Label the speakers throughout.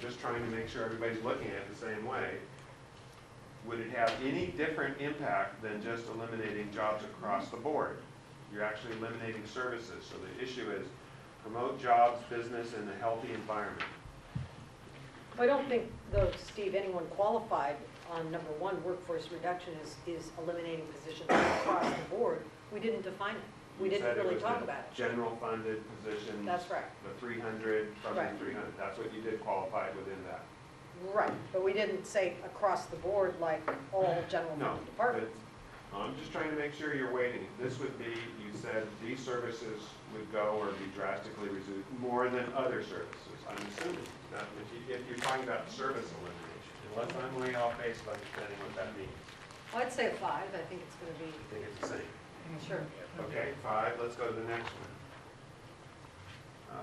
Speaker 1: just trying to make sure everybody's looking at it the same way. Would it have any different impact than just eliminating jobs across the board? You're actually eliminating services, so the issue is promote jobs, business, and a healthy environment.
Speaker 2: I don't think, though, Steve, anyone qualified on number one, workforce reduction is, is eliminating positions across the board. We didn't define it. We
Speaker 1: You said
Speaker 2: didn't really
Speaker 1: was
Speaker 2: talk
Speaker 1: the Mm.
Speaker 2: about it.
Speaker 1: General funded positions.
Speaker 2: That's right.
Speaker 1: The three hundred from the
Speaker 2: Right.
Speaker 1: three hundred, that's what you did qualify within that.
Speaker 2: Right, but we didn't say across the board like all general
Speaker 1: No,
Speaker 2: fund
Speaker 1: but,
Speaker 2: departments.
Speaker 1: I'm just trying to make sure you're waiting. This would be, you said these services would go or be drastically reduced more than other services, I'm assuming. Now, if you, if you're talking about service elimination, unless I'm way off base of understanding what that means,
Speaker 2: Well, I'd say a five, I think it's gonna
Speaker 1: I
Speaker 2: be,
Speaker 1: think it's the same.
Speaker 2: sure.
Speaker 1: Okay, five, let's go to the next one.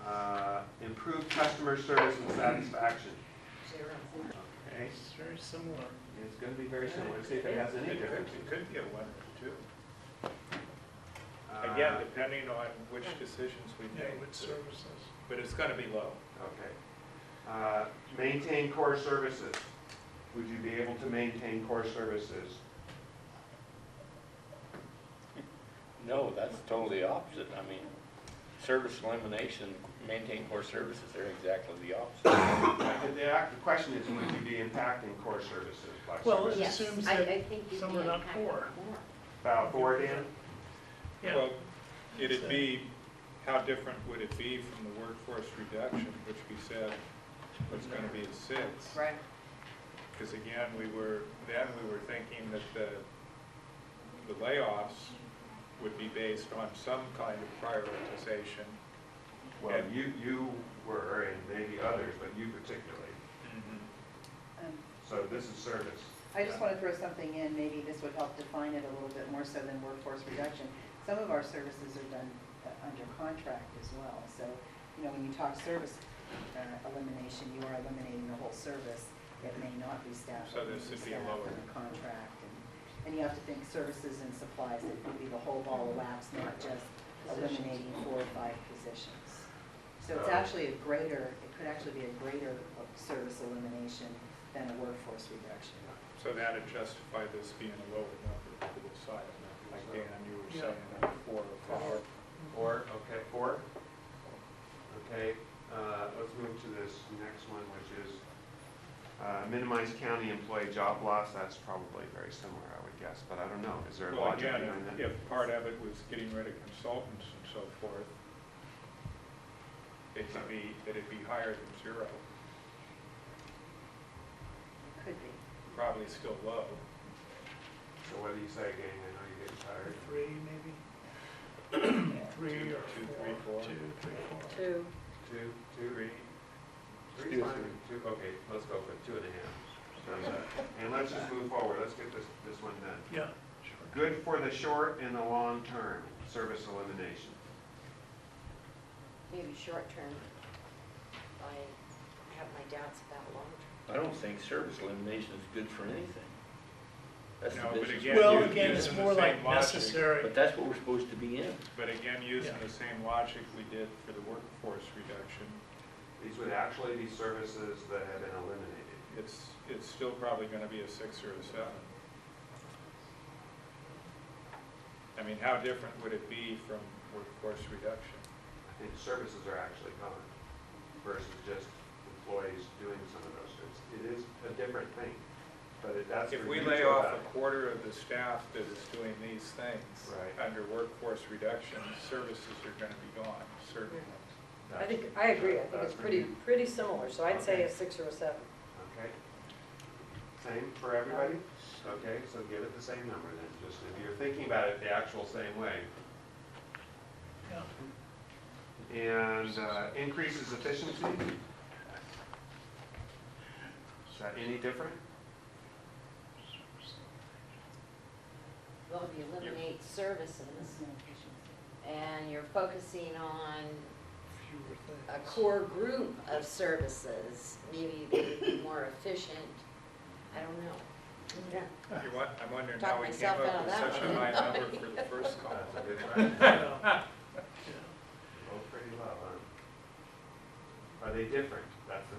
Speaker 1: Uh, Improve customer service and satisfaction.
Speaker 2: Zero.
Speaker 1: Okay,
Speaker 3: It's very similar.
Speaker 1: it's gonna be very similar, Let's see if it has any
Speaker 3: It could-
Speaker 1: differences.
Speaker 3: It could be a one or two.
Speaker 1: Uh,
Speaker 4: Again, depending on which decisions we
Speaker 3: Yeah,
Speaker 4: make,
Speaker 3: with services.
Speaker 4: but it's gonna be low.
Speaker 1: Okay. Uh, Maintain core services. Would you be able to maintain core services?
Speaker 5: No, that's totally opposite. I mean, service elimination, maintain core services, they're exactly the opposite.
Speaker 1: The- The act- the question is, would you be impacting core services by
Speaker 3: Well,
Speaker 1: services?
Speaker 3: It
Speaker 6: Yes,
Speaker 3: assumes
Speaker 6: I-
Speaker 3: that
Speaker 6: I think you
Speaker 3: some are
Speaker 6: can
Speaker 3: not
Speaker 6: have
Speaker 3: poor.
Speaker 6: more.
Speaker 1: About four, Dan?
Speaker 3: Yeah,
Speaker 4: Well, it'd be, how different would it be from the workforce reduction, which we said was gonna be a six?
Speaker 2: Right,
Speaker 4: Because again, we were, then we were thinking that the, the layoffs would be based on some kind of prioritization.
Speaker 1: Well, you, you were, and maybe others, but you particularly.
Speaker 3: Mm-hmm.
Speaker 7: Um,
Speaker 1: So this is service.
Speaker 7: I just want to throw something in, maybe this would help define it a little bit more so than workforce reduction. Some of our services are done uh, under contract as well, so, you know, when you talk service uh, elimination, you are eliminating the whole service. It may not be staff,
Speaker 4: So
Speaker 7: it may
Speaker 4: this
Speaker 7: be
Speaker 4: would be
Speaker 7: staff
Speaker 4: lower.
Speaker 7: and a contract. and- And you have to think services and supplies, it could be the whole ball of wax, not just eliminating four or five positions. So it's
Speaker 1: Oh.
Speaker 7: actually a greater, it could actually be a greater uh, service elimination than a workforce reduction.
Speaker 4: So that'd justify this being a lower number to the side of that, like Dan, you were
Speaker 3: Yeah.
Speaker 4: saying, like four or five.
Speaker 1: Four, okay, four? Okay, uh, let's move to this next one, which is uh, minimize county employee job loss. That's probably very similar, I would guess, but I don't know. Is there a
Speaker 4: Well,
Speaker 1: logic
Speaker 4: again,
Speaker 1: behind that?
Speaker 4: if if part of it was getting rid of consultants and so forth, it could be, that it'd be higher than zero,
Speaker 7: Could be.
Speaker 4: probably still low.
Speaker 1: So what do you say, gang? I know you're getting tired.
Speaker 3: three maybe? Three
Speaker 4: Two,
Speaker 3: or
Speaker 4: two, three,
Speaker 3: four,
Speaker 4: four.
Speaker 3: two, three, four.
Speaker 2: two,
Speaker 1: Two, two,
Speaker 4: Three,
Speaker 1: three's
Speaker 5: Still
Speaker 1: fine. Two, okay, let's go for two and a half. Sounds good. And let's just move forward. Let's get this, this one done.
Speaker 3: Yeah, sure.
Speaker 1: Good for the short and the long term, service elimination.
Speaker 6: Maybe short-term, I have my doubts about long-term.
Speaker 5: I don't think service elimination is good for anything. That's the
Speaker 4: No, but
Speaker 5: business.
Speaker 4: again,
Speaker 5: we're
Speaker 3: Well,
Speaker 4: you-
Speaker 5: in.
Speaker 3: again, it's
Speaker 4: using the
Speaker 3: more like
Speaker 4: same logic,
Speaker 5: But
Speaker 3: necessary.
Speaker 5: that's what we're supposed to be in.
Speaker 4: but again, using
Speaker 3: Yeah.
Speaker 4: the same logic we did for the workforce reduction,
Speaker 1: These would actually be services that have been eliminated.
Speaker 4: it's, it's still probably gonna be a six or a seven. I mean, how different would it be from workforce reduction?
Speaker 1: I think services are actually gone versus just employees doing some of those things. It is a different thing, but it- that's.
Speaker 4: If
Speaker 1: for
Speaker 4: we
Speaker 1: you
Speaker 4: lay
Speaker 1: to
Speaker 4: off
Speaker 1: evaluate.
Speaker 4: a quarter of the staff that is doing these things
Speaker 1: Right.
Speaker 4: under workforce reduction, services are gonna be gone, certainly.
Speaker 2: I think, I agree, I think
Speaker 1: That's
Speaker 2: it's
Speaker 1: for
Speaker 2: pretty,
Speaker 1: you.
Speaker 2: pretty similar, so I'd say a
Speaker 1: Okay.
Speaker 2: six or a seven.
Speaker 1: Okay. Same for everybody? Okay, so give it the same number then, just if you're thinking about it the actual same way.
Speaker 3: Yeah.
Speaker 1: And uh, increases efficiency? Is that any different?
Speaker 6: Well, if you eliminate services and you're focusing on
Speaker 3: Fewer things.
Speaker 6: a core group of services, maybe they would be more efficient. I don't know.
Speaker 2: Yeah.
Speaker 4: You want, I'm wondering
Speaker 6: Talk
Speaker 4: how we came
Speaker 6: myself out
Speaker 4: up
Speaker 6: of
Speaker 4: with
Speaker 6: that
Speaker 4: such a
Speaker 6: one.
Speaker 4: high number for the first call.
Speaker 1: That's a good question.
Speaker 3: Yeah. Yeah.
Speaker 1: Both pretty low, huh? Are they different? That's the